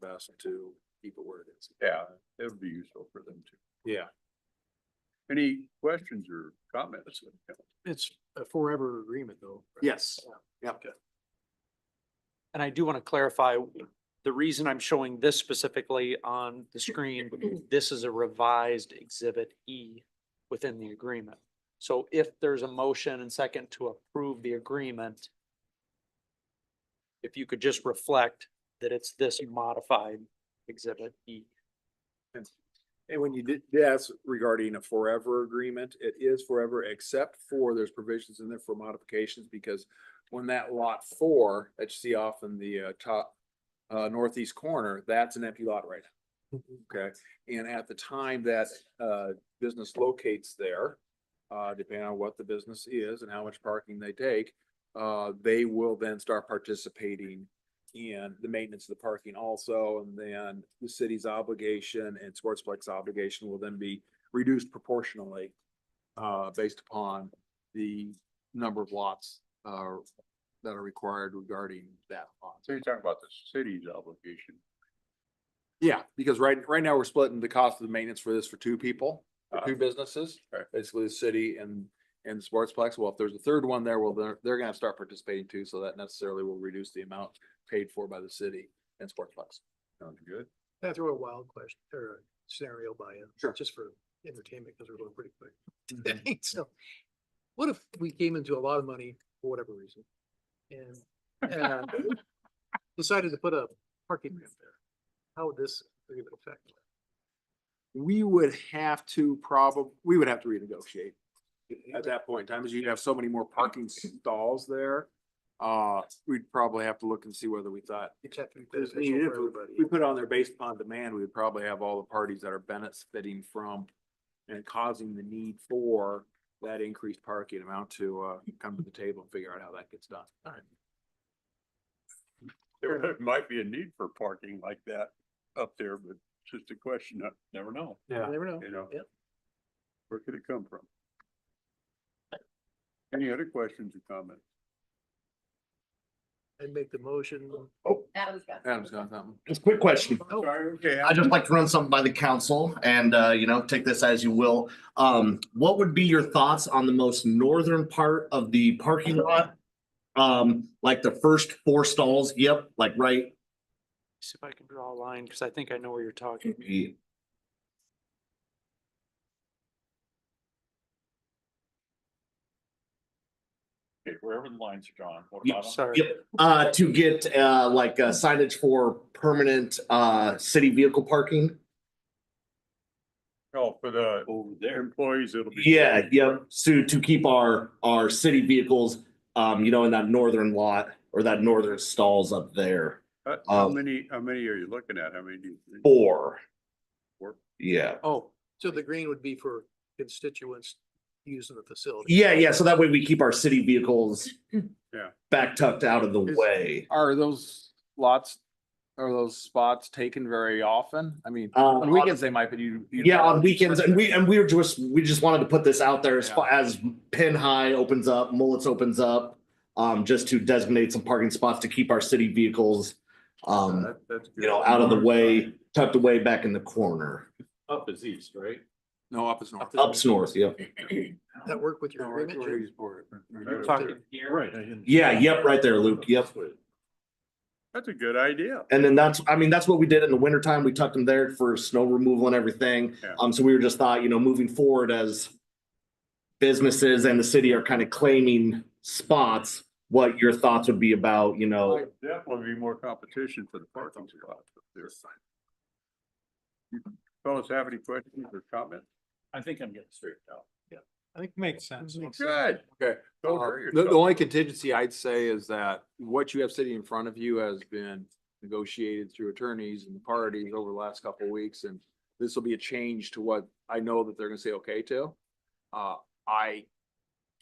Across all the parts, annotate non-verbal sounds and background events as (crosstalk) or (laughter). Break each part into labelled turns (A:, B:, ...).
A: best to keep it where it is.
B: Yeah, it would be useful for them to.
A: Yeah,
B: Any questions or comments?
C: It's a forever agreement though. right?
A: yes,
D: And I do want to clarify, the reason I'm showing this specifically on the screen, this is a revised exhibit E within the agreement. So if there's a motion and second to approve the agreement, if you could just reflect that it's this modified exhibit E.
A: and when you did, yes, regarding a forever agreement, it is forever, except for there's provisions in there for modifications, because when that lot four that you see off in the uh, top uh, northeast corner, that's an empty lot right now. Okay, and at the time that uh, business locates there, uh, depending on what the business is and how much parking they take, uh, they will then start participating in the maintenance of the parking also, and then the city's obligation and Sportsplex obligation will then be reduced proportionally uh, based upon the number of lots uh, that are required regarding that lot.
B: So you're talking about the city's obligation.
A: Yeah, because right, right now we're splitting the cost of the maintenance for this for two people, for
B: Uh,
A: two businesses,
B: right.
A: basically the city and, and Sportsplex. Well, if there's a third one there, well, they're, they're gonna start participating too, so that necessarily will reduce the amount paid for by the city and Sportsplex.
B: Sounds good.
C: Can I throw a wild question or a scenario by you?
A: Sure.
C: Just for entertainment, because we're going pretty
A: (laughs)
C: quick. today. (laughs) So what if we came into a lot of money for whatever reason? And uh,
A: (laughs)
C: decided to put a parking ramp there? How would this agreement affect? that?
A: We would have to probab, we would have to renegotiate at that point in time, as you'd have so many more parking stalls there. Uh, we'd probably have to look and see whether we thought
C: It'd have to be
A: I mean,
C: beneficial
A: if
C: for everybody.
A: We put it on there based upon demand, we would probably have all the parties that are benefiting from and causing the need for that increased parking amount to, uh, come to the table and figure out how that gets done.
B: There (laughs) might be a need for parking like that up there, but it's just a question of, never know,
C: You Never know.
B: you know?
C: Yep.
B: Where could it come from? Any other questions or comments?
C: I'd make the motion.
A: Oh,
C: Oh,
E: Adam's got.
A: Adam's got something.
F: Just quick question.
B: Sorry, okay.
F: I'd Oh. just like to run something by the council and, uh, you know, take this as you will. Um, what would be your thoughts on the most northern part of the parking lot? Um, like the first four stalls, yep, like right.
D: See if I can draw a line, because I think I know where you're
F: (clears throat)
D: talking.
B: Okay, wherever the lines are drawn, what
F: Yeah,
B: about 'em?
D: Sorry.
F: Yep, uh, to get, uh, like uh, signage for permanent, uh, city vehicle parking.
B: Oh, for the. Over there. Employees, it'll be.
F: Yeah, yep, so to keep our, our city vehicles, um, you know, in that northern lot or that northern stalls up there.
B: Uh, How
F: Um,
B: many, how many are you looking at? How many do you? think?
F: Four.
B: Four.
F: Yeah.
D: Oh,
C: So the green would be for constituents using the facility.
F: Yeah, yeah, so that way we keep our city vehicles.
B: Yeah.
F: Back tucked out of the
A: Is-
F: way.
A: Are those lots, are those spots taken very often? I mean,
F: Um,
A: on weekends they might, but you. you-
F: Yeah, on weekends, and we, and we were just, we just wanted to put this out there as,
A: Yeah.
F: fa- as Pin High opens up, Mullets opens up. Um, just to designate some parking spots to keep our city vehicles, um,
B: Uh, That- that's
F: you
B: good.
F: know, out of the way, tucked away back in the corner.
G: Up is east, right?
A: No, up is north.
F: Ups north, yeah.
C: That work with
A: No,
C: your
A: we're-
C: agreement,
A: we're
C: Jim?
A: used for it.
B: You're
D: talking here.
G: I didn't-
F: Yeah, yep, right there, Luke, yep.
B: That's a good idea.
F: And then that's, I mean, that's what we did in the wintertime. We tucked them there for snow removal and everything.
B: Yeah.
F: Um, so we were just thought, you know, moving forward as businesses and the city are kind of claiming spots, what your thoughts would be about, you know,
B: Definitely be more competition for the parking spots up there. You Fellas, have any questions or comments?
G: I think I'm getting straightened out.
C: I think makes sense.
B: Good.
A: Okay.
B: Don't
A: Uh,
B: hurt
A: The, the only
B: yourself.
A: contingency I'd say is that what you have sitting in front of you has been negotiated through attorneys and the parties over the last couple of weeks, and this will be a change to what I know that they're gonna say okay to. Uh, I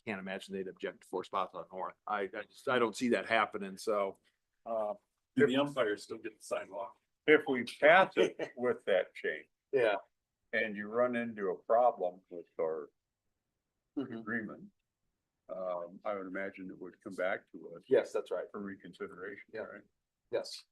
A: can't imagine they'd object to four spots on north. I, I just, I don't see that happening, so. Uh,
G: The umpire's still getting sidewalk.
B: If we pass
A: (laughs)
B: it with that change
A: yeah.
B: and you run into a problem with our
A: Mm-hmm.
B: agreement, um, I would imagine it would come back to us
A: Yes, that's right.
B: for reconsideration,
A: Yeah.
B: right?
A: Yes.